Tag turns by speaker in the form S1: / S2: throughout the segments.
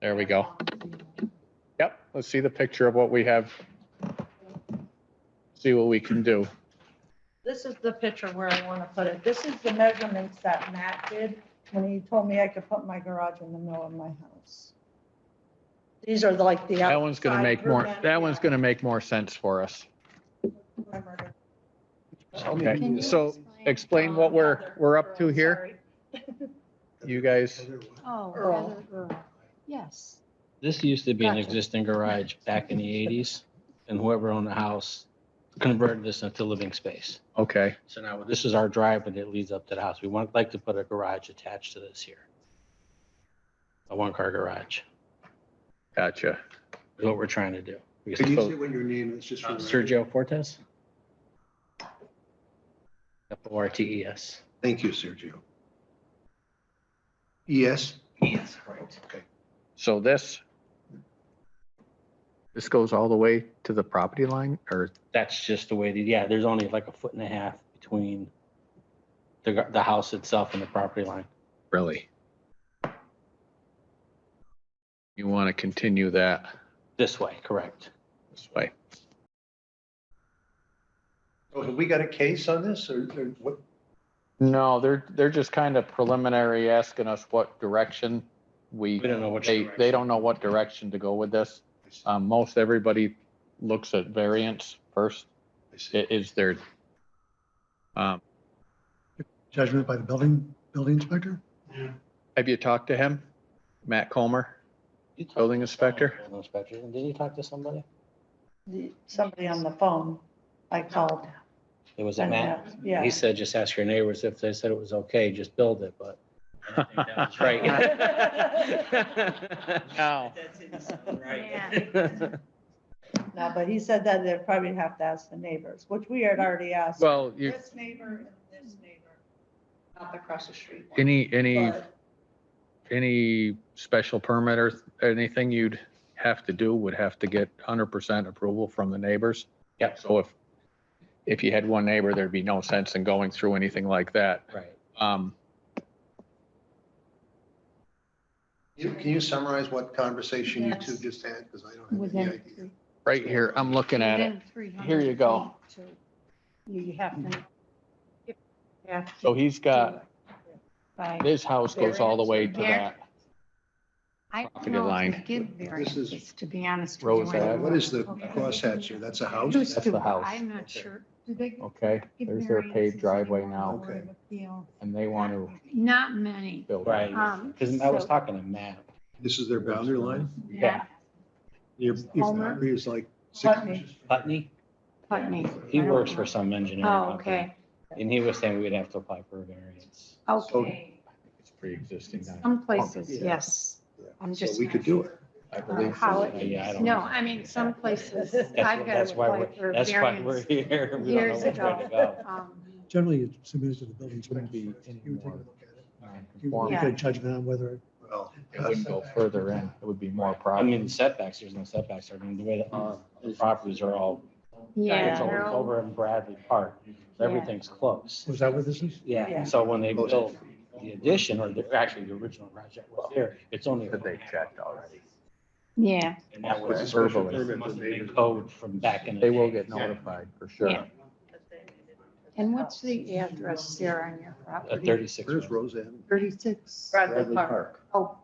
S1: There we go. Yep, let's see the picture of what we have. See what we can do.
S2: This is the picture where I want to put it. This is the measurements that Matt did when he told me I could put my garage in the middle of my house. These are like the.
S1: That one's gonna make more, that one's gonna make more sense for us.
S2: gonna.
S1: Okay, so explain what we're, we're up to here, you guys.
S3: Oh,
S2: Earl.
S3: Heather Earl. Yes.
S4: This used to be an
S3: Gotcha.
S4: existing garage back in the eighties, and whoever owned the house converted this into living space.
S1: Okay,
S4: So now this is our drive and it leads up to the house. We would like to put a garage attached to this here. A one-car garage
S1: gotcha.
S4: is what we're trying to do. Because-
S5: Can you say what your name is, just
S4: Uh,
S5: for the record?
S4: Oh. Sergio Fortes? F O R T E S.
S5: Thank you, Sergio. Yes?
S4: Yes, E right.
S5: Okay.
S1: So this, this goes all the way to the property line or,
S4: That's just the way, that yeah, there's only like a foot and a half between the, gar- the house itself and the property line.
S1: really? You want to continue that
S4: This way, correct.
S1: this way?
S5: So have we got a case on this or or what?
S1: No, they're, they're just kind of preliminary asking us what direction we,
S4: We don't know which.
S1: they, they
S4: direction.
S1: don't know what direction to go with this. Um, most everybody looks at variance first,
S5: I see.
S1: i- is their, um,
S6: Judgment by the building, building inspector?
S1: have you talked to him? Matt Comer?
S4: You talked
S1: building
S4: to someone,
S1: inspector?
S4: building Inspector, didn't you talk to somebody?
S2: Somebody on the phone, I called.
S4: It was
S2: and
S4: Matt.
S2: asked- Yeah.
S4: He said, just ask your neighbors if they said it was okay, just build it, but. I don't think that was Right.
S1: No.
S4: That didn't sound
S3: Yeah.
S2: No, but he said that they'd probably have to ask the neighbors, which we had already asked.
S1: Well, you,
S2: This neighbor and this neighbor, up across the street.
S1: any, any,
S2: But
S1: any special permit or th- anything you'd have to do would have to get hundred percent approval from the neighbors.
S4: Yep.
S1: So if, if you had one neighbor, there'd be no sense in going through anything like that.
S4: Right.
S1: Um,
S5: You- Can you summarize what conversation you two
S3: Yes.
S5: just had? Because I don't have any
S3: Within
S5: idea.
S3: three.
S1: right here, I'm looking at it.
S3: within 300
S1: Here you go.
S3: feet to- You have to. you have to
S1: So he's
S3: do
S1: got,
S3: it By.
S1: his house goes all the way to that.
S3: I don't
S1: property
S3: know if
S1: line.
S3: they give
S5: This is-
S3: variances, to be honest.
S1: Rose
S3: with you.
S1: Ave.
S5: What is the crosshatch here? That's a house?
S3: Used
S1: That's
S3: to,
S1: the
S3: but
S1: house.
S3: I'm not sure. Do they
S1: Okay,
S3: give
S1: there's their
S3: variances
S1: paved driveway
S3: anymore?
S1: now
S5: Okay.
S3: Appeal.
S1: and they want to
S3: Not many.
S1: build. on it.
S4: Right,
S3: Um,
S4: because I was
S3: so-
S4: talking to Matt.
S5: This is their boundary line?
S4: Yeah.
S5: Your your
S3: Homer?
S5: boundary is like six
S2: Putney.
S5: inches?
S4: Putney,
S3: Putney.
S4: he works for some engineering
S3: Oh,
S4: company,
S3: okay,
S4: and he was saying we'd have to apply for a variance.
S3: okay.
S1: It's pre-existing. now.
S3: Some places,
S5: Yeah.
S3: yes.
S5: Yeah.
S3: I'm
S5: So
S3: just.
S5: we could do it.
S1: I believe
S3: How
S1: so.
S3: it
S4: Yeah, I
S3: is.
S4: don't
S3: No,
S4: know.
S3: I mean, some places,
S4: That's,
S3: I've
S4: what-
S3: got
S4: that's
S3: to
S4: why
S3: apply for
S4: we're, that's why we're
S3: variance.
S4: here. We don't know
S3: years
S4: which way to
S3: ago.
S4: go.
S3: Um,
S6: Generally, it's submitted to the building
S5: It wouldn't
S6: inspector.
S5: be
S6: You
S5: any
S6: would take a
S5: more.
S6: look at it. You would
S1: Non-conforming.
S6: make a judgment on whether.
S5: Well,
S1: It wouldn't go further in. It would be more
S4: I mean,
S1: property.
S4: setbacks, there's no setbacks, I mean, the way that uh, the properties are all
S3: yeah.
S4: It's over-
S3: they're all-
S4: over in Bradley Park. So
S3: Yeah.
S4: Everything's close.
S6: Was that what this is?
S4: Yeah,
S2: Yeah.
S4: and so when they built the addition, or the- actually the original garage that was there, it's only.
S1: But they checked already.
S3: Yeah,
S4: And that
S5: What's the
S4: was.
S5: special
S1: verbally.
S5: permit
S4: must
S5: that
S4: have
S5: made
S4: been
S5: it?
S4: Code from back in. the
S1: They will
S4: day.
S1: get notified for sure.
S3: Yeah. and what's the address there on your
S4: A
S3: property?
S4: thirty-six.
S5: Where's Roseanne?
S3: Thirty-six.
S2: Bradley Park.
S3: Oh.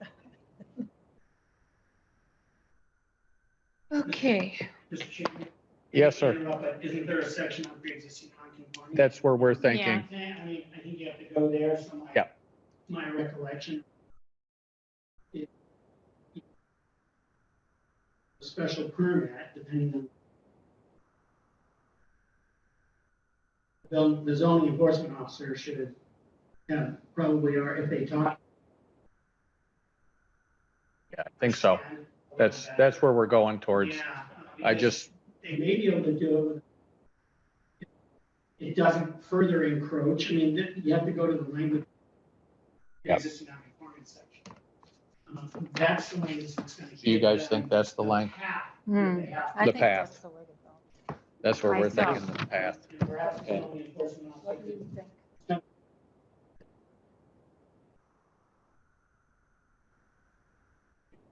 S3: Okay,
S7: Mr. Chairman.
S1: Yes, sir.
S7: Isn't there a section on pre-existing non-conforming?
S1: That's where we're thinking.
S7: Yeah, I mean, I think you have to go there, so my.
S1: Yeah.
S7: My recollection. is a Special permit, depending on. The- The zoning enforcement officer should have, yeah, probably are, if they talk.
S1: Yeah, I think so. That's, that's where we're going towards.
S7: Yeah, uh,
S1: I
S7: because-
S1: just,
S7: they may be able to do it. with- It doesn't further encroach, I mean, th- you have to go to the language.
S1: Yep.
S7: Existing non-conformance section. Um, That's the language that's gonna.
S1: do you
S7: give
S1: guys
S7: them
S1: think that's the length?
S7: path that
S3: hmm,
S7: they have
S3: I
S1: The
S3: think that's the way to go.
S1: That's where we're
S3: Myself.
S1: thinking the path.
S7: to- Perhaps the only enforcement officer
S3: What do you think?